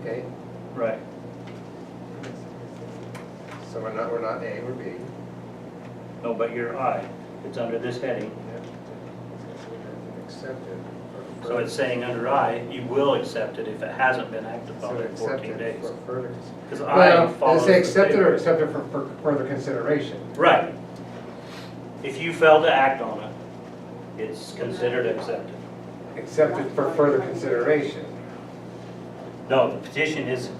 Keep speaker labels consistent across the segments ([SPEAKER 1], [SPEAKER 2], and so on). [SPEAKER 1] okay?
[SPEAKER 2] Right,
[SPEAKER 1] So we're not, we're not A, we're B.
[SPEAKER 2] no, but you're I, it's under this heading.
[SPEAKER 1] Accepted.
[SPEAKER 2] So it's saying under I, you will accept it if it hasn't been acted
[SPEAKER 1] So
[SPEAKER 2] upon in fourteen
[SPEAKER 1] accepted
[SPEAKER 2] days.
[SPEAKER 1] for further.
[SPEAKER 2] Because I
[SPEAKER 1] Well, they
[SPEAKER 2] follows.
[SPEAKER 1] say
[SPEAKER 2] the
[SPEAKER 1] accepted
[SPEAKER 2] paper.
[SPEAKER 1] or accepted for for further consideration.
[SPEAKER 2] Right. If you fail to act on it, it's considered accepted.
[SPEAKER 1] Accepted for further consideration.
[SPEAKER 2] No, the petition is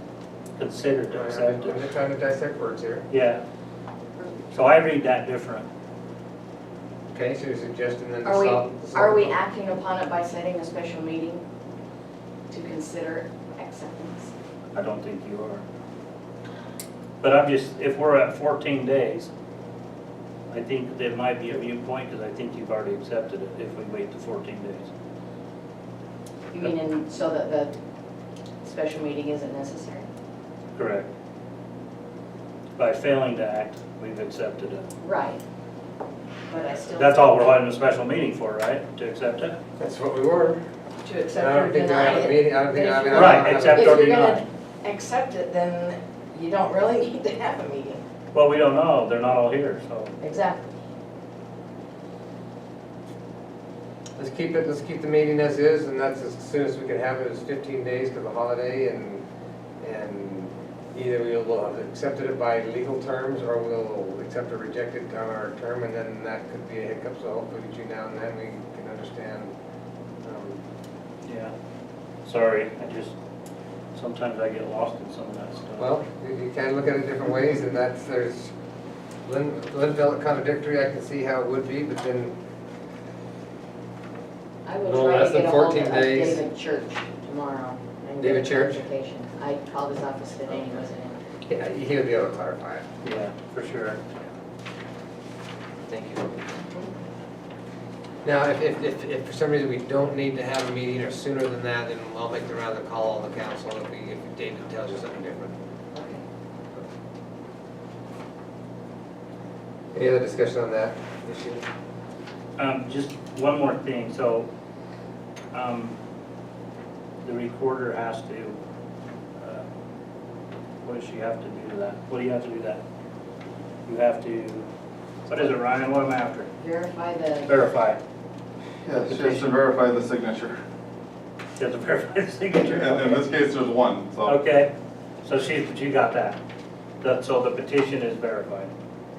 [SPEAKER 2] considered
[SPEAKER 1] Right,
[SPEAKER 2] accepted.
[SPEAKER 1] I'm just trying to dissect words here.
[SPEAKER 2] Yeah. So I read that different.
[SPEAKER 1] Okay, so you're suggesting then to
[SPEAKER 3] Are we,
[SPEAKER 1] solve.
[SPEAKER 3] are we acting upon it by setting a special meeting to consider acceptance?
[SPEAKER 2] I don't think you are. But I'm just, if we're at fourteen days, I think there might be a viewpoint, because I think you've already accepted it if we wait to fourteen days.
[SPEAKER 3] You mean in, so that the special meeting isn't necessary?
[SPEAKER 2] Correct. By failing to act, we've accepted it.
[SPEAKER 3] Right. But I still.
[SPEAKER 2] That's all we're holding a special meeting for, right? To accept it?
[SPEAKER 1] That's what we were.
[SPEAKER 3] To
[SPEAKER 1] I
[SPEAKER 3] accept or
[SPEAKER 1] don't think we
[SPEAKER 3] deny
[SPEAKER 1] have a meeting,
[SPEAKER 3] it.
[SPEAKER 1] I don't think, I mean. I don't
[SPEAKER 2] Right,
[SPEAKER 1] have a-
[SPEAKER 2] accept
[SPEAKER 3] If
[SPEAKER 2] or
[SPEAKER 3] you're
[SPEAKER 2] deny.
[SPEAKER 3] gonna accept it, then you don't really need to have a meeting.
[SPEAKER 2] Well, we don't know, they're not all here, so.
[SPEAKER 3] Exactly.
[SPEAKER 1] Let's keep it, let's keep the meeting as is, and that's as soon as we can have it, it's fifteen days to the holiday, and, and either we'll have accepted it by legal terms, or we'll accept or reject it on our term, and then that could be a hiccup, so hopefully between now and then, we can understand. um,
[SPEAKER 2] Yeah. Sorry, I just, sometimes I get lost in some of that stuff.
[SPEAKER 1] Well, you you can look at it different ways, and that's, there's, Lynn, Lynn felt contradictory, I can see how it would be, but then,
[SPEAKER 3] I will
[SPEAKER 1] No
[SPEAKER 3] try
[SPEAKER 1] less
[SPEAKER 3] to
[SPEAKER 1] than
[SPEAKER 3] get a hold
[SPEAKER 1] 14
[SPEAKER 3] of
[SPEAKER 1] days.
[SPEAKER 3] David Church tomorrow. and get
[SPEAKER 1] David Church?
[SPEAKER 3] clarification. I called his office today and he wasn't in.
[SPEAKER 1] yeah, he would be able to clarify it.
[SPEAKER 2] Yeah, for sure.
[SPEAKER 1] Thank you. Now, if, if, if, if for some reason we don't need to have a meeting or sooner than that, then I'll make the round and call on the council if we, if David tells you something different.
[SPEAKER 3] Okay.
[SPEAKER 1] Any other discussion on that issue?
[SPEAKER 2] Um, just one more thing, so, um, the recorder has to, uh, what does she have to do to that? What do you have to do to that? You have to, what is it, Ryan, what am I after?
[SPEAKER 3] Verify the,
[SPEAKER 2] Verify.
[SPEAKER 4] Yeah, she has to verify the signature.
[SPEAKER 2] You have to verify the
[SPEAKER 4] In
[SPEAKER 2] signature.
[SPEAKER 4] in this case, there's one, so.
[SPEAKER 2] Okay, so she, she got that. That, so the petition is verified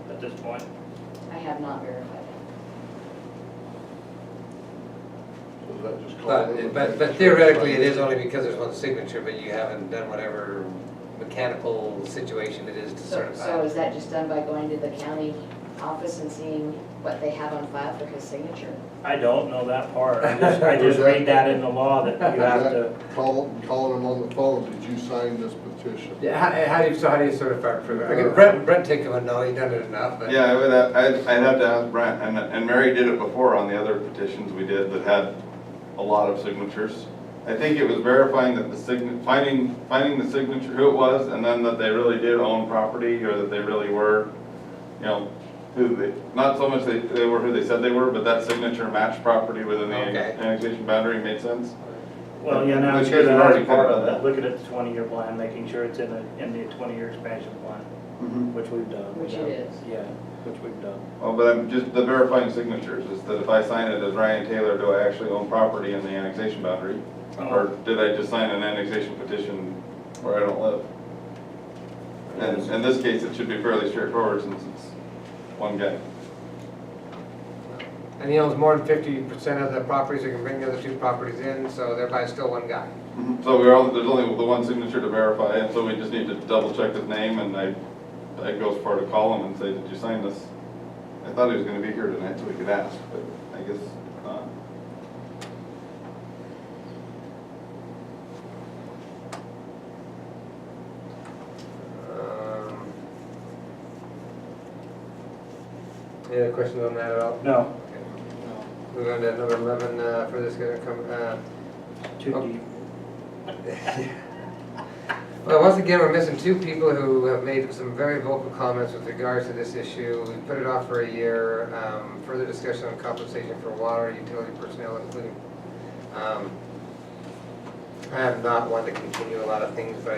[SPEAKER 2] at this point.
[SPEAKER 3] I have not verified it.
[SPEAKER 1] But, but but theoretically, it is only because there's one signature, but you haven't done whatever mechanical situation it is to
[SPEAKER 3] So, so
[SPEAKER 1] certify.
[SPEAKER 3] is that just done by going to the county office and seeing what they have on file for his signature?
[SPEAKER 2] I don't know that part. I just, I just read that in the law that you have to,
[SPEAKER 5] Call, calling them on the phone, did you sign this petition?
[SPEAKER 1] Yeah, how, how do you, so how do you certify proof? I mean, Brent, Brent take him a no, he done it enough, but.
[SPEAKER 4] Yeah, I would, have- I'd, I'd have to ask Brent, and, and Mary did it before on the other petitions we did that had a lot of signatures. I think it was verifying that the sign, finding, finding the signature, who it was, and then that they really did own property, or that they really were, you know, who they, not so much they, they were who they said they were, but that signature matched property within the
[SPEAKER 1] Okay.
[SPEAKER 4] annexation boundary made sense.
[SPEAKER 2] well, yeah, now,
[SPEAKER 4] Which
[SPEAKER 2] sure
[SPEAKER 4] is
[SPEAKER 2] that
[SPEAKER 4] already
[SPEAKER 2] is part
[SPEAKER 4] covered
[SPEAKER 2] of
[SPEAKER 4] by
[SPEAKER 2] that.
[SPEAKER 4] that.
[SPEAKER 2] Looking at the twenty-year plan, making sure it's in the, in the twenty-year expansion plan,
[SPEAKER 1] Mm-hmm.
[SPEAKER 2] which we've done.
[SPEAKER 3] Which it is.
[SPEAKER 2] Yeah, which we've done.
[SPEAKER 4] Well, Oh, but I'm just, the verifying signatures is that if I sign it as Ryan Taylor, do I actually own property in the annexation boundary? Or did I just sign an annexation petition where I don't live? And in this case, it should be fairly straightforward since it's one guy.
[SPEAKER 1] And he owns more than fifty percent of the properties, he can bring the other two properties in, so thereby it's still one guy.
[SPEAKER 4] So we're all, there's only the one signature to verify, and so we just need to double check his name, and I, I go as far to call him and say, did you sign this? I thought he was gonna be here tonight, so we could ask, but I guess not.
[SPEAKER 1] Um, Any other questions on that at all?
[SPEAKER 2] No,
[SPEAKER 1] Okay. We're going to number eleven, uh, for this, gonna come, uh,
[SPEAKER 2] too deep.
[SPEAKER 1] well, once again, we're missing two people who have made some very vocal comments with regards to this issue. We put it off for a year, um, further discussion on compensation for water, utility personnel, including, um, I am not one to continue a lot of things, but